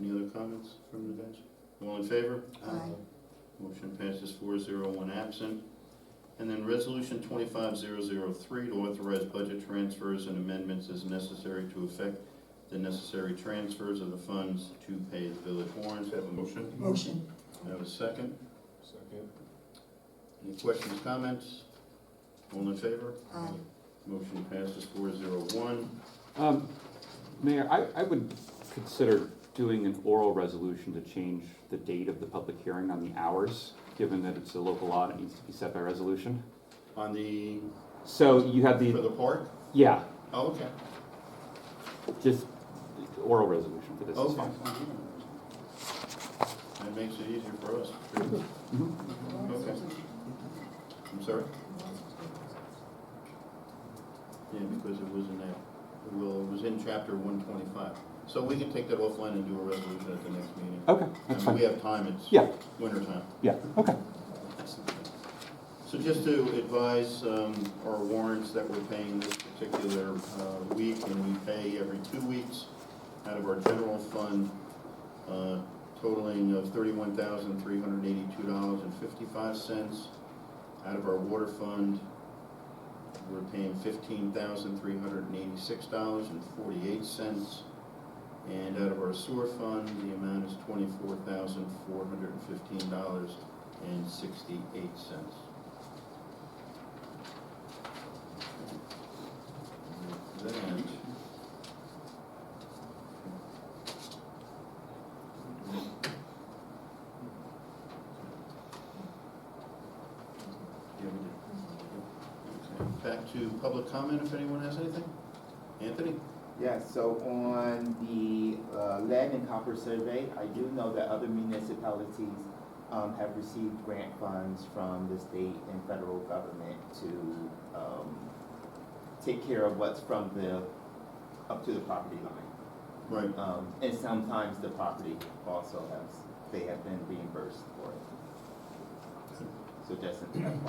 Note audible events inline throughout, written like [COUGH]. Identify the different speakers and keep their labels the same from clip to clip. Speaker 1: Any other comments from the bench? All in favor?
Speaker 2: Aye.
Speaker 1: Motion passes four zero, one absent. And then resolution twenty-five zero zero three to authorize budget transfers and amendments as necessary to effect the necessary transfers of the funds to pay the village warrants. Have a motion?
Speaker 2: Motion.
Speaker 1: Have a second?
Speaker 3: Second.
Speaker 1: Any questions, comments? All in favor?
Speaker 2: Aye.
Speaker 1: Motion passes four zero one.
Speaker 4: Um, Mayor, I, I would consider doing an oral resolution to change the date of the public hearing on the hours, given that it's a local law and it needs to be set by resolution.
Speaker 1: On the,
Speaker 4: So you have
Speaker 1: for
Speaker 4: the,
Speaker 1: the park?
Speaker 4: yeah,
Speaker 1: Oh, okay.
Speaker 4: just oral resolution for this is
Speaker 1: Okay.
Speaker 4: fine.
Speaker 1: That makes it easier for us. Sure.
Speaker 4: Mhm.
Speaker 1: Okay. I'm sorry? Yeah, because it was in that, well, it was in chapter one twenty-five. So we can take that offline and do a resolution at the next meeting.
Speaker 4: Okay, that's
Speaker 1: And we
Speaker 4: fine.
Speaker 1: have time, it's
Speaker 4: Yeah,
Speaker 1: winter time.
Speaker 4: yeah, okay.
Speaker 1: So just to advise um, our warrants that we're paying this particular uh, week, and we pay every two weeks out of our general fund uh, totaling of thirty-one thousand, three hundred eighty-two dollars and fifty-five cents. Out of our water fund, we're paying fifteen thousand, three hundred eighty-six dollars and forty-eight cents. And out of our sewer fund, the amount is twenty-four thousand, four hundred and fifteen dollars and sixty-eight cents. Then. Yeah, we did. Okay, Back to public comment if anyone has anything. Anthony?
Speaker 5: Yes, so on the uh, lead and copper survey, I do know that other municipalities um, have received grant funds from the state and federal government to um, take care of what's from the, up to the property line.
Speaker 1: Right.
Speaker 5: Um, And sometimes the property also has, they have been reimbursed for it. So just
Speaker 1: [CLEARS THROAT]
Speaker 5: an FYI. and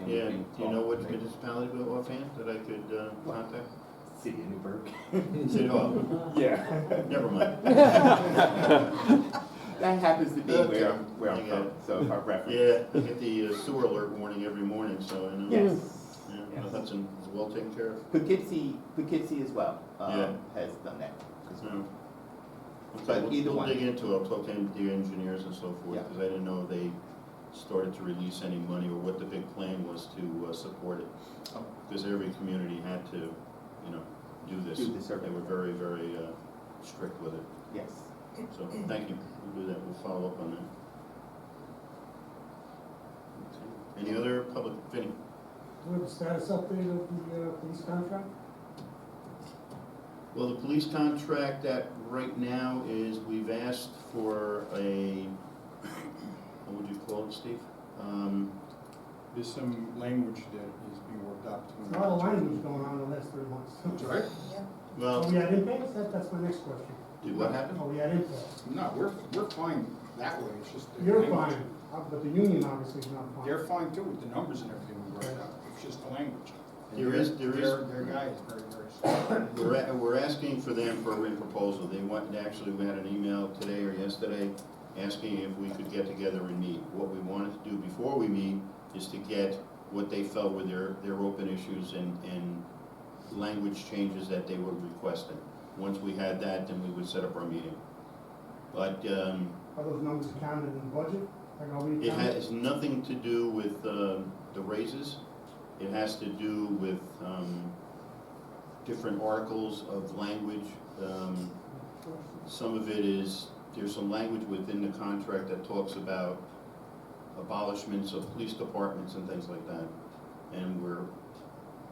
Speaker 5: then we
Speaker 1: Yeah,
Speaker 5: can
Speaker 1: do you know
Speaker 5: talk
Speaker 1: what
Speaker 5: later.
Speaker 1: municipality we're offhand that I could uh, contact?
Speaker 5: City of Newburgh.
Speaker 1: City Hall.
Speaker 5: Yeah. [LAUGHS]
Speaker 1: Never mind.
Speaker 5: That happens to be
Speaker 1: Okay.
Speaker 5: where, I'm- where
Speaker 1: I
Speaker 5: I'm
Speaker 1: got
Speaker 5: from,
Speaker 1: it.
Speaker 5: so our reference.
Speaker 1: [LAUGHS] Yeah, I get the uh, sewer alert warning every morning, so I know.
Speaker 5: Yes.
Speaker 1: Yeah,
Speaker 5: Yes.
Speaker 1: Hudson is well taken care of.
Speaker 5: Poughkeepsie, Poughkeepsie as well,
Speaker 1: Yeah.
Speaker 5: um, has done that. as well.
Speaker 1: No. Okay,
Speaker 5: But
Speaker 1: we'll-
Speaker 5: either
Speaker 1: We'll
Speaker 5: one.
Speaker 1: dig into it, I'll talk to the engineers and so forth,
Speaker 5: Yeah.
Speaker 1: because I didn't know if they started to release any money or what the big plan was to uh, support it.
Speaker 5: Oh.
Speaker 1: Because every community had to, you know, do this.
Speaker 5: Do the survey.
Speaker 1: They were very, very uh, strict with it.
Speaker 5: Yes.
Speaker 1: So, thank you, we'll do that, we'll follow up on that. Okay. Any other public, Vinnie?
Speaker 6: Do we have a status update of the uh, police contract?
Speaker 1: Well, the police contract that right now is, we've asked for a, what would you call it, Steve? Um,
Speaker 3: There's some language that is being worked out
Speaker 6: A
Speaker 3: between.
Speaker 6: lot of Oh, language going on in the last three months. Oh,
Speaker 3: Sorry?
Speaker 6: Are
Speaker 1: Well,
Speaker 6: we at impasse? That, that's my next question. Oh,
Speaker 1: did what happened?
Speaker 6: Are we at impasse?
Speaker 3: No, we're, we're fine that way, it's just. the
Speaker 6: You're
Speaker 3: language.
Speaker 6: fine, uh, but the union obviously is not fine.
Speaker 3: They're fine too with the numbers and everything we worked out, it's just the language. And
Speaker 1: There is-
Speaker 3: their-
Speaker 1: there is-
Speaker 3: Their, their guy is very, very
Speaker 1: [COUGHS]
Speaker 3: slow.
Speaker 1: We're, a- we're asking for them for a written proposal. They want, they actually, we had an email today or yesterday asking if we could get together and meet. What we wanted to do before we meet is to get what they felt were their, their open issues and, and language changes that they were requesting. Once we had that, then we would set up our meeting. But, um,
Speaker 6: Are those numbers counted in the budget? Like, are we
Speaker 1: it
Speaker 6: counted?
Speaker 1: has nothing to do with, um, the raises. It has to do with, um, different articles of language. Um, some of it is, there's some language within the contract that talks about abolishments of police departments and things like that. And we're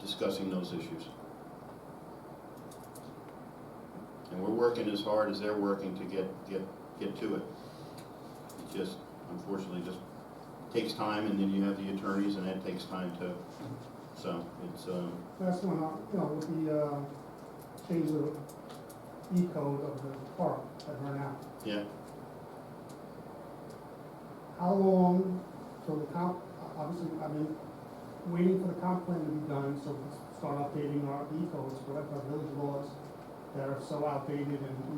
Speaker 1: discussing those issues. And we're working as hard as they're working to get, get, get to it. It just, unfortunately, just takes time, and then you have the attorneys, and that takes time too. So it's, um,
Speaker 6: That's when, uh, you know, with the, uh, change of E code of the park that ran out.
Speaker 1: yeah,
Speaker 6: How long till the comp, obviously, I mean, waiting for the comp plan to be done, so we can start updating our E codes, whatever village laws that are so outdated and not